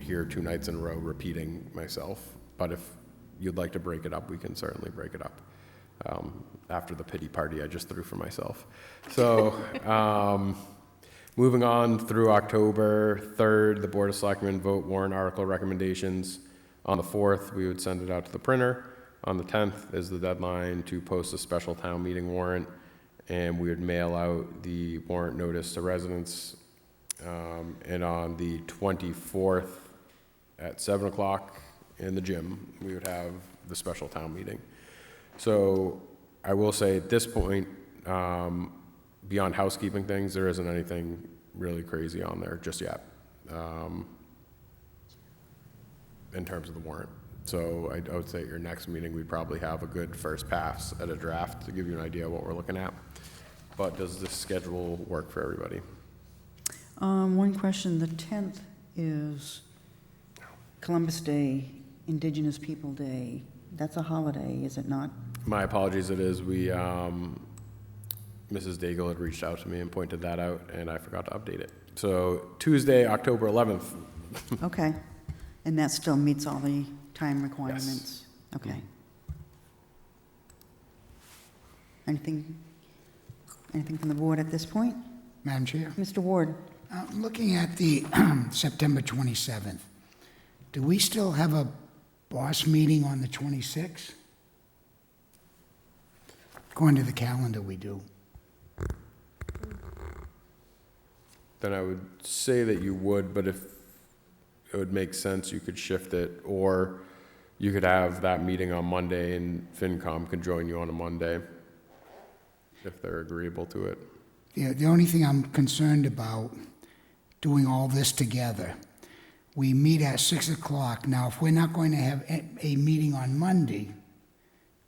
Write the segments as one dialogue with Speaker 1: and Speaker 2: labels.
Speaker 1: here two nights in a row repeating myself, but if you'd like to break it up, we can certainly break it up. Um, after the pity party I just threw for myself. So, um, moving on through October 3rd, the Board of Selectmen vote warrant article recommendations. On the 4th, we would send it out to the printer. On the 10th is the deadline to post a special town meeting warrant, and we would mail out the warrant notice to residents. Um, And on the 24th, at 7 o'clock in the gym, we would have the special town meeting. So I will say at this point, um, beyond housekeeping things, there isn't anything really crazy on there just yet. um, In terms of the warrant. So I I would say at your next meeting, we probably have a good first pass at a draft to give you an idea of what we're looking at. But does this schedule work for everybody?
Speaker 2: Um, One question, the 10th is Columbus Day, Indigenous People Day. That's a holiday, is it not?
Speaker 1: My apologies, it is, we, um, Mrs. Daigle had reached out to me and pointed that out, and I forgot to update it. So Tuesday, October 11th,
Speaker 2: Okay. And that still meets all the time requirements? Okay. Anything, anything from the board at this point?
Speaker 3: Madam Chair,
Speaker 2: Mr. Ward?
Speaker 3: uh, looking at the September 27th, do we still have a boss meeting on the 26th? According to the calendar, we do.
Speaker 1: then I would say that you would, but if it would make sense, you could shift it, or you could have that meeting on Monday, and FinCom can join you on a Monday, if they're agreeable to it.
Speaker 3: The the only thing I'm concerned about, doing all this together, we meet at 6 o'clock. Now, if we're not going to have a- a meeting on Monday,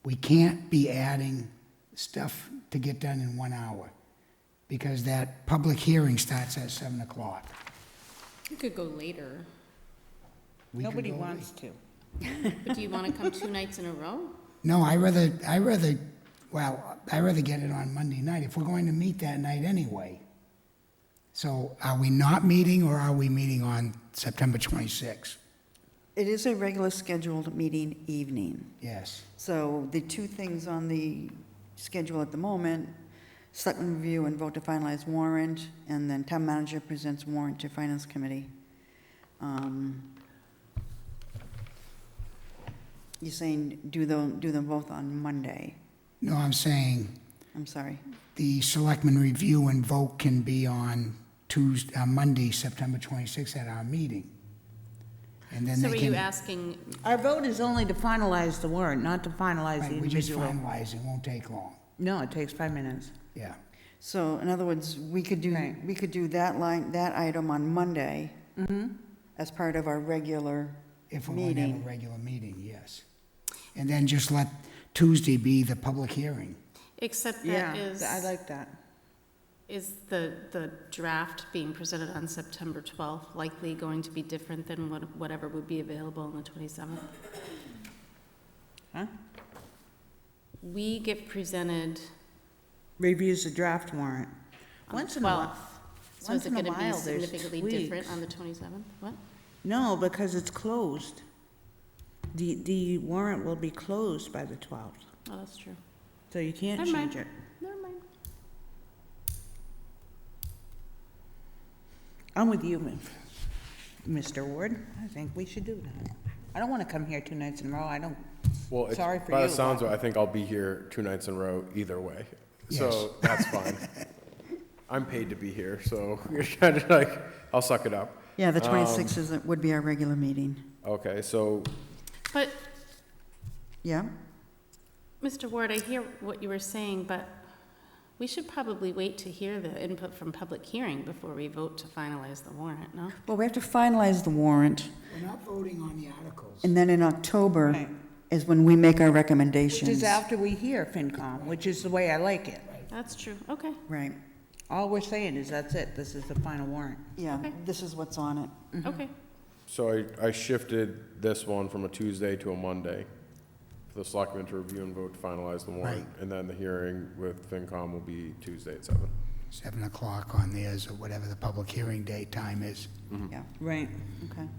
Speaker 3: we can't be adding stuff to get done in one hour, because that public hearing starts at 7 o'clock.
Speaker 4: You could go later,
Speaker 3: We could
Speaker 5: Nobody
Speaker 3: go
Speaker 5: wants to.
Speaker 4: but do you want to come two nights in a row?
Speaker 3: No, I rather, I rather, well, I rather get it on Monday night, if we're going to meet that night anyway. So are we not meeting, or are we meeting on September 26th?
Speaker 2: It is a regular scheduled meeting evening.
Speaker 3: Yes.
Speaker 2: So the two things on the schedule at the moment, selectmen review and vote to finalize warrant, and then town manager presents warrant to finance committee. Um, You're saying do them, do them both on Monday?
Speaker 3: No, I'm saying
Speaker 2: I'm sorry.
Speaker 3: the selectmen review and vote can be on Tuesday, uh, Monday, September 26th at our meeting. And then
Speaker 4: So are
Speaker 3: they
Speaker 4: you
Speaker 3: can,
Speaker 4: asking,
Speaker 5: Our vote is only to finalize the warrant, not to finalize the
Speaker 3: right, we just
Speaker 5: individual.
Speaker 3: finalize, it won't take long,
Speaker 5: No, it takes five minutes.
Speaker 3: yeah.
Speaker 2: So in other words, we could do,
Speaker 5: Right.
Speaker 2: we could do that line, that item on Monday as part of our regular
Speaker 3: If we're going to have
Speaker 2: Meeting.
Speaker 3: a regular meeting, yes. And then just let Tuesday be the public hearing.
Speaker 4: except
Speaker 5: Yeah,
Speaker 4: that is,
Speaker 5: I like that.
Speaker 4: is the, the draft being presented on September 12th likely going to be different than what- whatever would be available on the 27th?
Speaker 5: Huh?
Speaker 4: We get presented,
Speaker 5: Reviews the draft warrant.
Speaker 4: On
Speaker 5: Once in a while.
Speaker 4: 12th. so
Speaker 5: Once
Speaker 4: is it
Speaker 5: in a
Speaker 4: going to be
Speaker 5: while, there's
Speaker 4: significantly different
Speaker 5: tweaks.
Speaker 4: on the 27th? What?
Speaker 5: No, because it's closed. The, the warrant will be closed by the 12th,
Speaker 4: Oh, that's true.
Speaker 5: so you can't
Speaker 4: Never mind.
Speaker 5: change it.
Speaker 4: Never mind.
Speaker 5: I'm with you, Mi- Mr. Ward. I think we should do that. I don't want to come here two nights in a row. I don't,
Speaker 1: Well, it's-
Speaker 5: Sorry for
Speaker 1: By the
Speaker 5: you.
Speaker 1: sounds of it, I think I'll be here two nights in a row either way, so that's fine. I'm paid to be here, so kind of like, I'll suck it up.
Speaker 2: Yeah, the 26th is, would be our regular meeting.
Speaker 1: Okay, so
Speaker 4: But,
Speaker 2: Yeah?
Speaker 4: Mr. Ward, I hear what you were saying, but we should probably wait to hear the input from public hearing before we vote to finalize the warrant, no?
Speaker 2: Well, we have to finalize the warrant.
Speaker 3: We're not voting on the articles.
Speaker 2: And then in October
Speaker 5: Right.
Speaker 2: is when we make our
Speaker 5: which is
Speaker 2: recommendations.
Speaker 5: after we hear FinCom, which is the way I like it.
Speaker 4: That's true, okay.
Speaker 2: Right,
Speaker 5: All we're saying is that's it. This is the final warrant.
Speaker 2: yeah,
Speaker 4: Okay.
Speaker 2: this is what's on it.
Speaker 4: Okay,
Speaker 1: So I, I shifted this one from a Tuesday to a Monday for the selectmen to review and vote to finalize the warrant. And then the hearing with FinCom will be Tuesday at seven.
Speaker 3: Seven o'clock on theirs, or whatever the public hearing date time is.
Speaker 2: Yeah,
Speaker 5: Right.
Speaker 2: okay.